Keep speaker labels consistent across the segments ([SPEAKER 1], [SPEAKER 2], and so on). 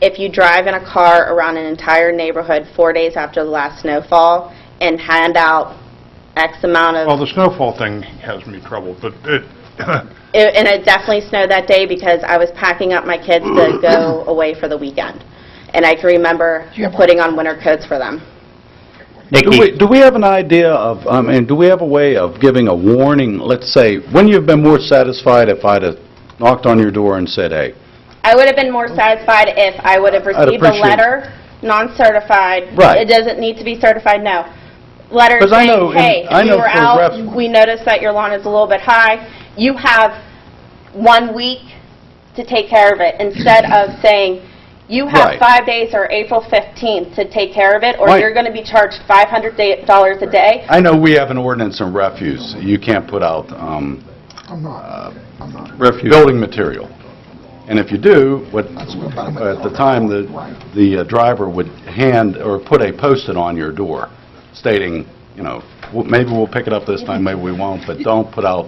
[SPEAKER 1] if you drive in a car around an entire neighborhood four days after the last snowfall and hand out X amount of
[SPEAKER 2] Oh.
[SPEAKER 3] Well, the snowfall thing has me troubled, but it,
[SPEAKER 1] It- And it definitely snowed that day because I was packing up my kids to go away for the weekend. And I can remember putting on winter coats for them.
[SPEAKER 4] Do
[SPEAKER 5] Nikki,
[SPEAKER 4] we, do we have an idea of, I mean, do we have a way of giving a warning, let's say, when you've been more satisfied if I'd have knocked on your door and said, hey,
[SPEAKER 1] I would have been more satisfied if I would have received a
[SPEAKER 4] appreciate it.
[SPEAKER 1] letter, non-certified.
[SPEAKER 4] Right.
[SPEAKER 1] It doesn't need to be certified, no. Letter
[SPEAKER 4] 'Cause I know
[SPEAKER 1] saying, hey,
[SPEAKER 4] in- I
[SPEAKER 1] we
[SPEAKER 4] know
[SPEAKER 1] were
[SPEAKER 4] for
[SPEAKER 1] out,
[SPEAKER 4] ref-
[SPEAKER 1] we noticed that your lawn is a little bit high, you have one week to take care of it, instead of saying, you have
[SPEAKER 4] Right.
[SPEAKER 1] five days or April 15th to take care of it, or
[SPEAKER 4] Right.
[SPEAKER 1] you're going to be charged $500 da- dollars a day,
[SPEAKER 4] I know we have an ordinance on refuse, you can't put out, um... I'm not, I'm not. Refuse. Building material. And if you do, what, at the time, the, the uh, driver would hand, or put a post-it on your door stating, you know, "Well, maybe we'll pick it up this time, maybe we won't, but don't put out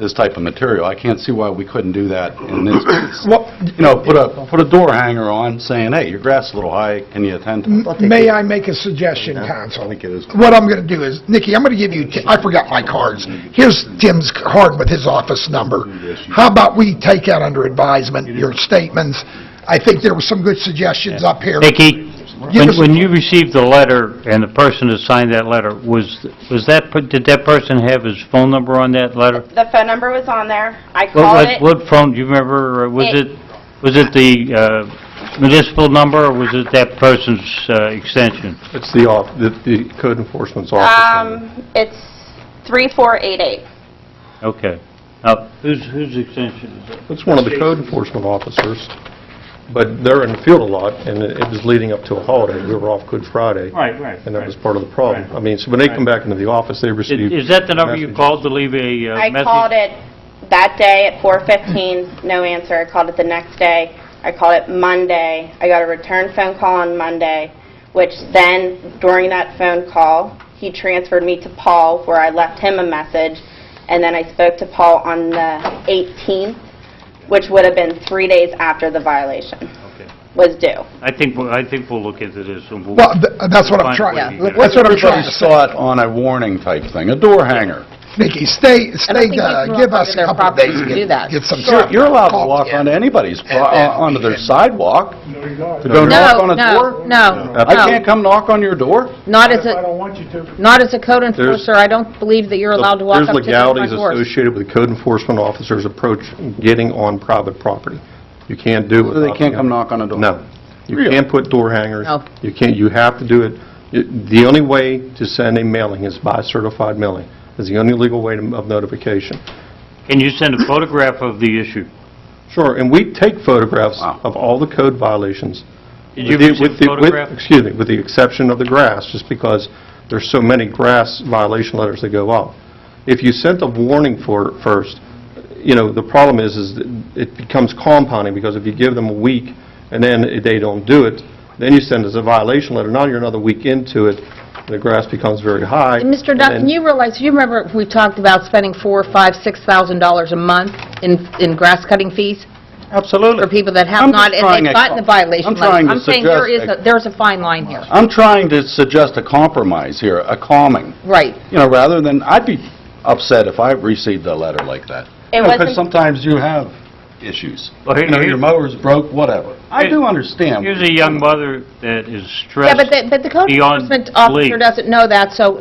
[SPEAKER 4] this type of material. I can't see why we couldn't do that in this case. You know, put a, put a door hanger on saying, hey, your grass is a little high, can you attend to it?
[SPEAKER 6] May I make a suggestion, Council? What I'm going to do is, Nikki, I'm going to give you, I forgot my cards. Here's Tim's card with his office number. How about we take out under advisement your statements? I think there were some good suggestions up here.
[SPEAKER 5] Nikki,
[SPEAKER 6] Give
[SPEAKER 5] when
[SPEAKER 6] us-
[SPEAKER 5] when you received the letter and the person who signed that letter, was, was that, per- did that person have his phone number on that letter?
[SPEAKER 1] The phone number was on there. I
[SPEAKER 5] What-
[SPEAKER 1] called
[SPEAKER 5] what-
[SPEAKER 1] it.
[SPEAKER 5] What phone, do you remember, or was
[SPEAKER 1] It-
[SPEAKER 5] it, was it the uh, municipal number, or was it that person's uh, extension?
[SPEAKER 2] It's the off, the- the code enforcement's office.
[SPEAKER 1] Um, it's 3488.
[SPEAKER 5] Okay. Now, whose, whose extension is it?
[SPEAKER 2] It's one of the code enforcement officers, but they're in the field a lot, and it it was leading up to a holiday. We were off Good Friday.
[SPEAKER 5] Right, right,
[SPEAKER 2] And that was
[SPEAKER 5] right.
[SPEAKER 2] part of the problem.
[SPEAKER 5] Right.
[SPEAKER 2] I mean, so when they come back into the office, they
[SPEAKER 5] Is
[SPEAKER 2] receive...
[SPEAKER 5] is that the number you
[SPEAKER 2] message.
[SPEAKER 5] called to leave a uh,
[SPEAKER 1] I
[SPEAKER 5] message?
[SPEAKER 1] called it that day at 4:15, no answer. I called it the next day. I called it Monday. I got a return phone call on Monday, which then, during that phone call, he transferred me to Paul, where I left him a message, and then I spoke to Paul on the 18th, which would have been three days after the violation
[SPEAKER 5] Okay.
[SPEAKER 1] was due.
[SPEAKER 5] I think, we'll- I think we'll look into this and we'll...
[SPEAKER 6] Well, th- that's what I'm
[SPEAKER 5] Fine,
[SPEAKER 6] trying,
[SPEAKER 5] yeah.
[SPEAKER 6] that's what I'm trying to
[SPEAKER 4] Everybody's
[SPEAKER 6] say.
[SPEAKER 4] thought on a warning type thing, a door hanger.
[SPEAKER 6] Nikki, stay, stay,
[SPEAKER 7] think they
[SPEAKER 6] uh,
[SPEAKER 7] can
[SPEAKER 6] give
[SPEAKER 7] walk
[SPEAKER 6] us a
[SPEAKER 7] onto their
[SPEAKER 6] couple of
[SPEAKER 7] property
[SPEAKER 6] days to
[SPEAKER 7] to do
[SPEAKER 6] get
[SPEAKER 7] that.
[SPEAKER 6] get some...
[SPEAKER 4] Sure, you're allowed to
[SPEAKER 6] Call
[SPEAKER 4] walk
[SPEAKER 6] in.
[SPEAKER 4] onto anybody's, pro-
[SPEAKER 6] then-
[SPEAKER 4] onto their sidewalk.
[SPEAKER 2] No,
[SPEAKER 4] Don't knock
[SPEAKER 7] No,
[SPEAKER 4] on a
[SPEAKER 7] no,
[SPEAKER 4] door?
[SPEAKER 7] no,
[SPEAKER 4] I
[SPEAKER 7] no.
[SPEAKER 4] can't come knock on your door?
[SPEAKER 7] Not as a, not as a code enforcer, I don't believe that you're allowed to walk
[SPEAKER 2] There's
[SPEAKER 7] up to the front
[SPEAKER 2] legalities
[SPEAKER 7] horse.
[SPEAKER 2] associated with the code enforcement officer's approach getting on private property. You can't do it.
[SPEAKER 4] So they can't come knock on a door?
[SPEAKER 2] No. You
[SPEAKER 4] Really?
[SPEAKER 2] can't put door hangers.
[SPEAKER 7] No.
[SPEAKER 2] You can't, you have to do it. You- The only way to send a mailing is by certified mailing. It's the only legal way to- of notification.
[SPEAKER 5] Can you send a photograph of the issue?
[SPEAKER 2] Sure, and we take photographs
[SPEAKER 4] Wow.
[SPEAKER 2] of all the code violations.
[SPEAKER 5] Did you
[SPEAKER 2] With the-
[SPEAKER 5] receive
[SPEAKER 2] with the- with-
[SPEAKER 5] photograph?
[SPEAKER 2] Excuse me, with the exception of the grass, just because there's so many grass violation letters that go out. If you sent a warning for, first, you know, the problem is, is that it becomes compounding, because if you give them a week and then they don't do it, then you send us a violation letter, now you're another week into it, the grass becomes very high.
[SPEAKER 7] And Mr.
[SPEAKER 2] and
[SPEAKER 7] Duncan,
[SPEAKER 2] then-
[SPEAKER 7] you realize, you remember we talked about spending four, five, six thousand dollars a month in, in grass cutting fees
[SPEAKER 4] Absolutely.
[SPEAKER 7] for people that have
[SPEAKER 4] I'm just
[SPEAKER 7] not, and
[SPEAKER 4] trying
[SPEAKER 7] they've
[SPEAKER 4] a
[SPEAKER 7] gotten the
[SPEAKER 4] com-
[SPEAKER 7] violation
[SPEAKER 4] I'm
[SPEAKER 7] letter.
[SPEAKER 4] trying to
[SPEAKER 7] I'm saying there is,
[SPEAKER 4] suggest
[SPEAKER 7] a there's a fine line here.
[SPEAKER 4] I'm trying to suggest a compromise here, a calming,
[SPEAKER 7] Right.
[SPEAKER 4] you know, rather than, I'd be upset if I received a letter like that.
[SPEAKER 1] It
[SPEAKER 4] Because
[SPEAKER 1] wasn't-
[SPEAKER 4] sometimes you have issues.
[SPEAKER 5] Well, here-
[SPEAKER 4] You know, your
[SPEAKER 5] here-
[SPEAKER 4] mower's broke, whatever. I
[SPEAKER 5] Here-
[SPEAKER 4] do understand.
[SPEAKER 5] Here's a young mother that is
[SPEAKER 7] Yeah, but
[SPEAKER 5] stressed
[SPEAKER 7] the, but the code
[SPEAKER 5] beyond
[SPEAKER 7] enforcement officer
[SPEAKER 5] belief.
[SPEAKER 7] doesn't know that, so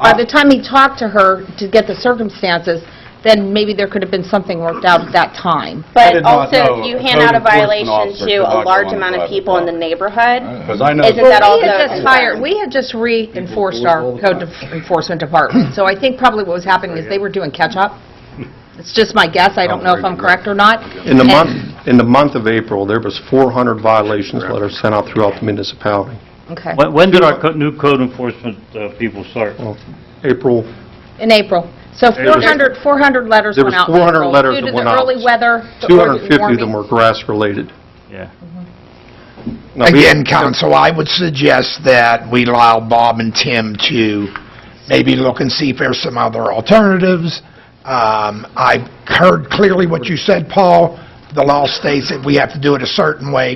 [SPEAKER 7] by the time he talked to her to get the circumstances, then maybe there could have been something worked out at that time.
[SPEAKER 4] I
[SPEAKER 1] But
[SPEAKER 4] did not
[SPEAKER 1] also,
[SPEAKER 4] know
[SPEAKER 1] if you
[SPEAKER 4] a
[SPEAKER 1] hand
[SPEAKER 4] code
[SPEAKER 1] out a
[SPEAKER 4] enforcement
[SPEAKER 1] violation
[SPEAKER 4] officer
[SPEAKER 1] to
[SPEAKER 4] could
[SPEAKER 1] a
[SPEAKER 4] not go
[SPEAKER 1] large
[SPEAKER 4] on a
[SPEAKER 1] amount of
[SPEAKER 4] private
[SPEAKER 1] people in the
[SPEAKER 4] property.
[SPEAKER 1] neighborhood,
[SPEAKER 4] Because I know...
[SPEAKER 1] Isn't that all
[SPEAKER 7] We had
[SPEAKER 1] goes
[SPEAKER 7] just
[SPEAKER 1] in.
[SPEAKER 7] hired, we had just reinforced our code enforcement department, so I think probably what was happening is they were doing catch-up. It's just my guess, I don't know if I'm correct or not.
[SPEAKER 2] In the
[SPEAKER 7] And-
[SPEAKER 2] month, in the month of April, there was 400 violations letters sent out throughout the municipality.
[SPEAKER 7] Okay,
[SPEAKER 5] When when did our co- new code enforcement uh, people start?
[SPEAKER 2] Well, April,
[SPEAKER 7] in April. So 400, 400 letters
[SPEAKER 2] There
[SPEAKER 7] went
[SPEAKER 2] was
[SPEAKER 7] out in
[SPEAKER 2] 400
[SPEAKER 7] April
[SPEAKER 2] letters that went out.
[SPEAKER 7] Due to the early weather, the early
[SPEAKER 2] 250 of them
[SPEAKER 7] warming.
[SPEAKER 2] were grass-related.
[SPEAKER 5] Yeah.
[SPEAKER 2] Now, we-
[SPEAKER 6] Again, council, I would suggest that we allow Bob and Tim to maybe look and see if there's some other alternatives. Um, I heard clearly what you said, Paul. The law states that we have to do it a certain way.